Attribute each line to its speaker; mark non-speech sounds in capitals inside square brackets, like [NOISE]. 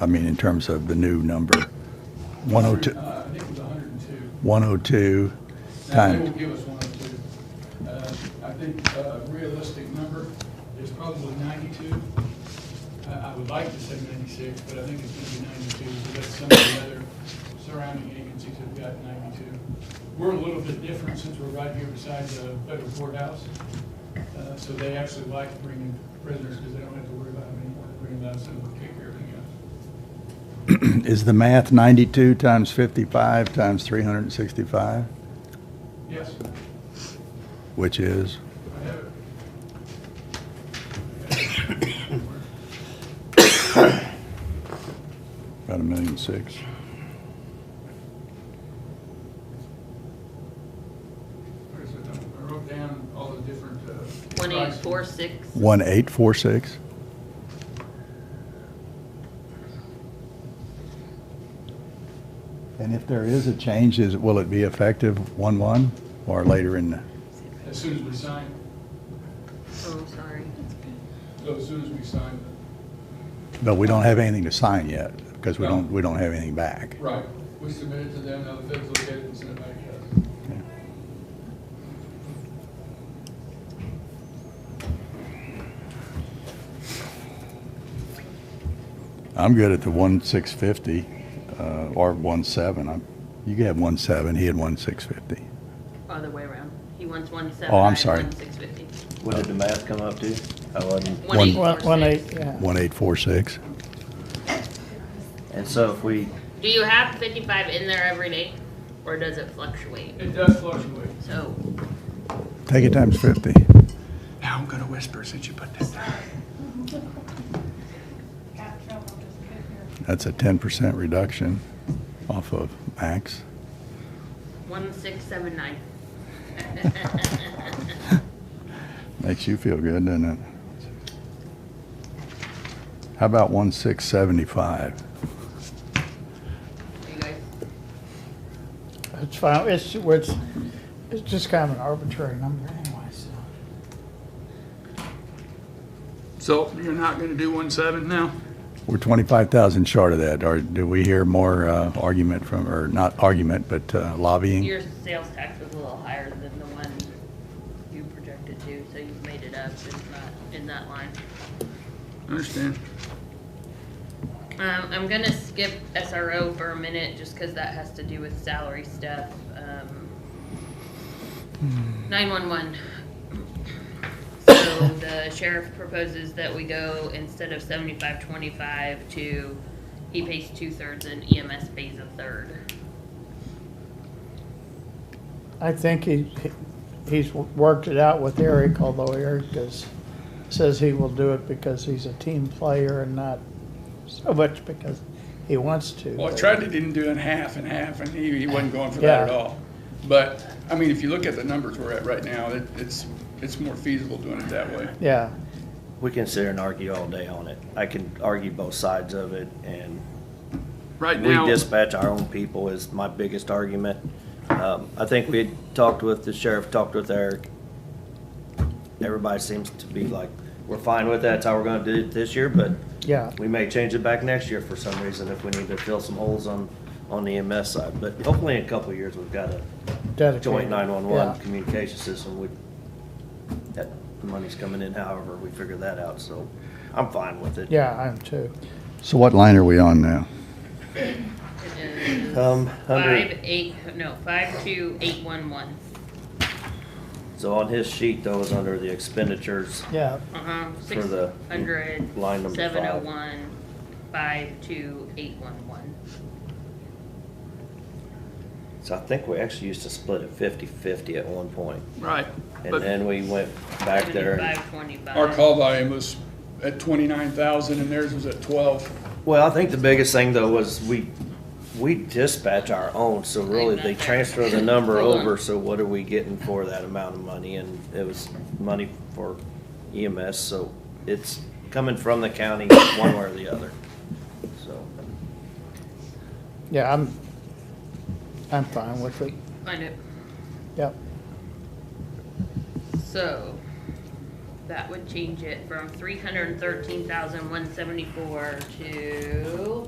Speaker 1: I mean, in terms of the new number? 102,
Speaker 2: Uh, I think it was hundred and two.
Speaker 1: 102
Speaker 2: Now, they will
Speaker 1: times, [CLEARS THROAT]
Speaker 2: give us one oh two. Uh, I think a realistic number is probably ninety-two. I, I would like to say ninety-six, but I think it's gonna be ninety-two, because some of the other surrounding agencies have got ninety-two. We're a little bit different since we're right here beside the federal courthouse. Uh, so they actually like bringing prisoners, because they don't have to worry about them anymore, bringing them out, so we'll take care of everything else.
Speaker 1: is the math 92 times 55 times 365,
Speaker 2: Yes,
Speaker 1: which is?
Speaker 2: I have it.
Speaker 1: About a million six.
Speaker 2: Where's it? I wrote down all the different. uh,
Speaker 3: One eight
Speaker 2: prices.
Speaker 3: four six.
Speaker 1: 1846? And if there is a change, is, will it be effective 1/1 or later in? the-
Speaker 2: As soon as we sign,
Speaker 3: Oh, sorry.
Speaker 2: so oh, as soon as we sign.
Speaker 1: But we don't have anything to sign yet because we
Speaker 2: No.
Speaker 1: don't, we don't have anything back.
Speaker 2: Right. We submit it to them, now the feds look at it and send it back to us.
Speaker 1: I'm good at the 1,650 uh, or 1.7. I'm- You could have 1.7, he had 1,650.
Speaker 3: Other way around. He wants one seven.
Speaker 1: Oh, I'm sorry.
Speaker 3: Six fifty.
Speaker 4: What did the math come up to? I wasn't.
Speaker 3: One
Speaker 1: One-
Speaker 3: eight
Speaker 5: One,
Speaker 3: four
Speaker 5: one eight,
Speaker 3: six.
Speaker 5: yeah.
Speaker 1: 1.846.
Speaker 4: And so if we,
Speaker 3: Do you have fifty-five in there every day, or does it fluctuate?
Speaker 2: It does fluctuate.
Speaker 3: So,
Speaker 1: Take it times 50.
Speaker 2: Now I'm gonna whisper since you put that down.
Speaker 6: got in trouble just getting here.
Speaker 1: That's a 10% reduction off of max.
Speaker 3: one six seven nine. [LAUGHS]
Speaker 1: [LAUGHS] Makes you feel good, doesn't it? How about 1,675?
Speaker 3: You guys,
Speaker 5: It's fine, it's, it's, it's just kind of an arbitrary number anyway, so.
Speaker 2: So you're not gonna do one seven now?
Speaker 1: We're 25,000 short of that. Or do we hear more uh, argument from, or not argument, but uh, lobbying?
Speaker 3: your sales tax was a little higher than the one you projected to, so you've made it up. It's not in that line.
Speaker 2: Understand.
Speaker 3: Um, I'm gonna skip SRO for a minute, just cause that has to do with salary stuff, um. Nine-one-one. So the sheriff proposes that we go, instead of seventy-five, twenty-five, to, he pays two-thirds and EMS pays a third.
Speaker 5: I think he, he- he's worked it out with Eric, although Eric does, says he will do it because he's a team player and not so much because he wants to.
Speaker 2: Well, I
Speaker 5: but-
Speaker 2: tried to didn't do it half and half, and he, he wasn't going for that at
Speaker 5: Yeah.
Speaker 2: all. But, I mean, if you look at the numbers we're at right now, it, it's, it's more feasible doing it that way.
Speaker 5: Yeah,
Speaker 4: we can sit here and argue all day on it. I can argue both sides of it and
Speaker 2: Right
Speaker 4: we
Speaker 2: now.
Speaker 4: dispatch our own people is my biggest argument. Um, I think we had talked with the sheriff, talked with Eric. Everybody seems to be like, we're fine with that, that's how we're gonna do it this year, but
Speaker 5: yeah.
Speaker 4: we may change it back next year for some reason if we need to fill some holes on, on the MS side. But hopefully in a couple of years, we've got a
Speaker 5: dedicated,
Speaker 4: joint
Speaker 5: yeah.
Speaker 4: nine-one-one communication system, we, that money's coming in however we figure that out, so I'm fine with it.
Speaker 5: Yeah, I am too.
Speaker 1: So what line are we on now?
Speaker 3: It is
Speaker 4: Um, under,
Speaker 3: Five, eight, no, five-two-eight-one-one.
Speaker 4: so on his sheet though, is under the expenditures,
Speaker 5: Yeah,
Speaker 3: Uh-huh,
Speaker 4: For
Speaker 3: six
Speaker 4: the
Speaker 3: hundred,
Speaker 4: line number five.
Speaker 3: seven oh one, five-two-eight-one-one.
Speaker 4: so I think we actually used to split it 50-50 at one point.
Speaker 2: Right.
Speaker 4: And
Speaker 2: but-
Speaker 4: then we went back there, and-
Speaker 3: Seventy-five, twenty-five.
Speaker 2: Our call volume was at twenty-nine thousand and theirs was at twelve.
Speaker 4: well, I think the biggest thing though was we, we dispatch our own, so really they transfer the number
Speaker 3: Hold on.
Speaker 4: over, so what are we getting for that amount of money? And it was money for EMS, so it's coming from the county one way or the other, so.
Speaker 5: yeah, I'm, I'm fine with it,
Speaker 3: Find it.
Speaker 5: yep.
Speaker 3: So, that would change it from three hundred and thirteen thousand, one seventy-four to